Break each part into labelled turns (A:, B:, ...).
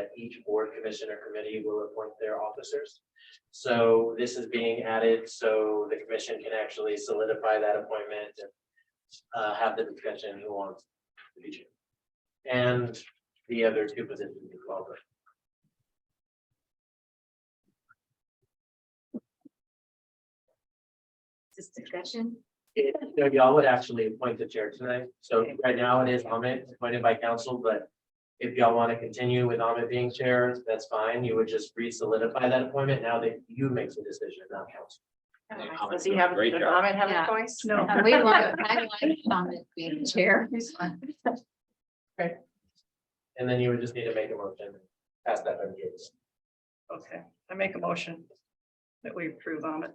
A: that each board, commission, or committee will appoint their officers. So this is being added so the commission can actually solidify that appointment and uh, have the discussion who wants to be chair. And the other two positions as well. but
B: This discussion,
A: it- so Y'all would actually appoint the chair tonight. So right now it is Amit appointed by council, but if y'all want to continue with Amit being chair, that's fine. You would just re-solidify that appointment now that you make the decision, not council.
C: Does he have,
D: Great
C: does
D: job.
C: Ahmed have
B: Yeah.
C: a choice?
E: No.
B: Uh, we want, I like Thomas being chair.
A: And then you would just need to make a motion, and pass that on to Gates.
E: Okay, I make a motion that we approve on it.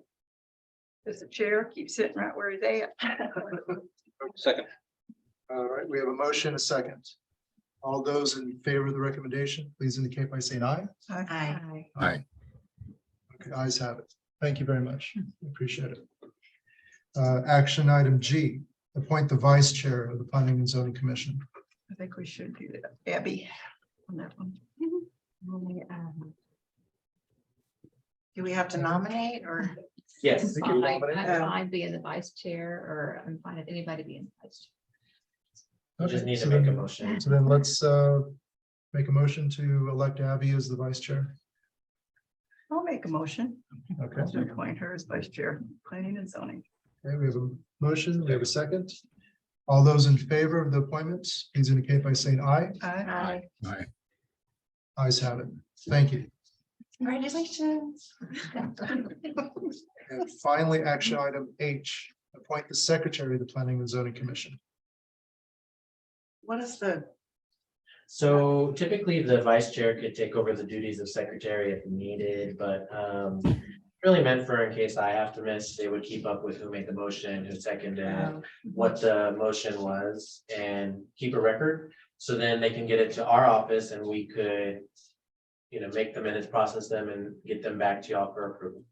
E: Does the chair keep sitting right where they at?
D: Second,
F: All right, we have a motion, a second. All those in favor of the recommendation, please indicate by saying aye.
B: Aye.
G: Aye.
F: Okay, ayes have it. Thank you very much. Appreciate it. Uh, action item G, appoint the vice chair of the planning and zoning commission.
E: I think we should do that. Abby. On that one.
B: I
C: Do we have to nominate or?
A: Yes,
F: think you were nominated.
B: I'm fine being the vice chair or I'm fine if anybody being vice.
A: you just need to
F: Okay, so
A: make a
F: then-
A: motion.
F: So then let's, uh, make a motion to elect Abby as the vice chair.
E: I'll make a motion
F: Okay,
E: to appoint her as vice chair, planning and zoning.
F: okay, we have a motion, we have a second. All those in favor of the appointments, please indicate by saying aye.
E: Aye.
G: Aye.
F: Ayes have it. Thank you.
C: Congratulations.
F: And finally, action item H, appoint the secretary of the planning and zoning commission.
C: What is the,
A: So typically the vice chair could take over the duties of secretary if needed, but um. Really meant for in case I have to miss, they would keep up with who made the motion, who seconded,
E: uh,
A: it, what the motion was and keep a record. So then they can get it to our office and we could. You know, make the minutes, process them and get them back to y'all for approval.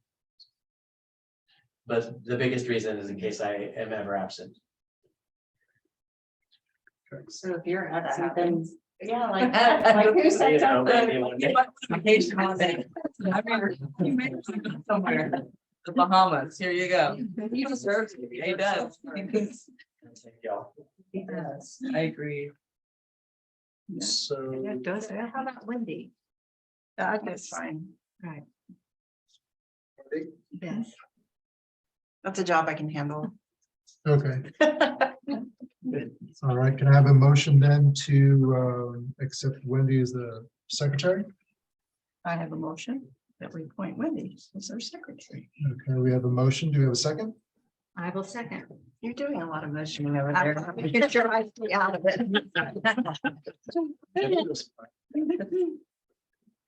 A: But the biggest reason is in case I am ever absent.
C: so if you're absent, then,
B: happens.
C: yeah, like, like who
A: You
C: sent
A: know,
C: out
A: maybe
C: the?
A: one day.
C: Somewhere.
H: The Bahamas, here you go. He deserves it. He does.
A: Thank Y'all.
C: Yes.
H: I agree.
E: Yeah.
F: So,
E: That does
B: How
E: happen.
B: about Wendy?
E: That's fine.
B: Yes.
C: That's a job I can handle.
F: okay, all right, can I have a motion then to um, accept Wendy as the secretary?
E: I have a motion that we appoint Wendy as our secretary.
F: Okay, we have a motion. Do we have a second?
B: I will second.
C: You're doing a lot of motioning over there.
B: Get your eyes out of it.
F: We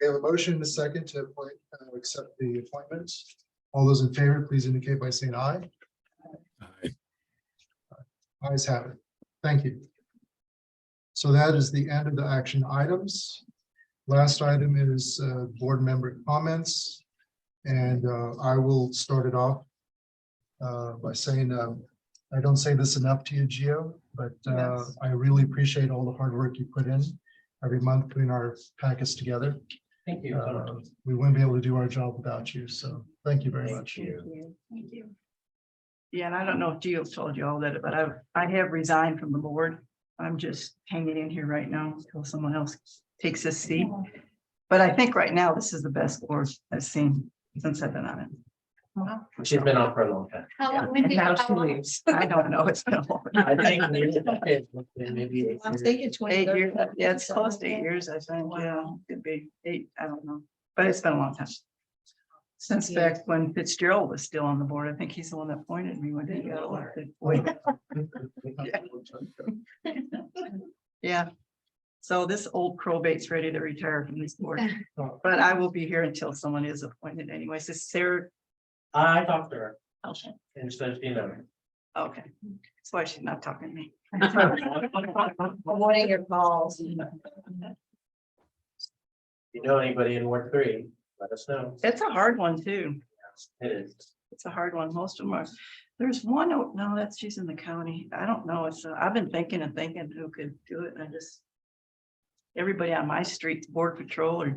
F: have a motion and a second to appoint, uh, accept the appointment. All those in favor, please indicate by saying aye.
G: Aye.
F: Eyes have it. Thank you. So that is the end of the action items. Last item is uh, board member comments. And uh, I will start it off uh, by saying, um, I don't say this enough to you, Gio, but uh,
E: Yes.
F: I really appreciate all the hard work you put in every month putting our packets together.
A: Thank you.
F: Uh, We wouldn't be able to do our job without you, so thank you very much.
E: Thank you. Yeah, and I don't know if Gio told you all that, but I've, I have resigned from the board. I'm just hanging in here right now until someone else takes this seat. But I think right now, this is the best board I've seen since I've been on it.
A: She's been on for a long time.
B: How long,
E: And
B: Wendy?
E: now
B: how
E: she
B: long-
E: leaves. I don't know. It's been a long.
A: I think maybe eight years.
E: Eight years, yeah, it's close to eight years, I think, yeah, could be eight, I don't know, but it's been a long time. Since
B: Yeah.
E: back when Fitzgerald was still on the board, I think he's the one that appointed me when he got elected. Yeah, so this old probate's ready to retire from this board, but I will be here until someone is appointed anyways, is Sarah?
A: I talked to her
E: Okay,
A: and so she knows.
E: Okay. that's why she's not talking to me.
C: Avoiding your calls.
A: If you know anybody in Ward Three, let us know.
E: It's a hard one too.
A: It is.
E: It's a hard one. Most of them are, there's one, oh, no, that's, she's in the county. I don't know. It's, uh, I've been thinking and thinking who could do it and I just. everybody on my street, board patrol or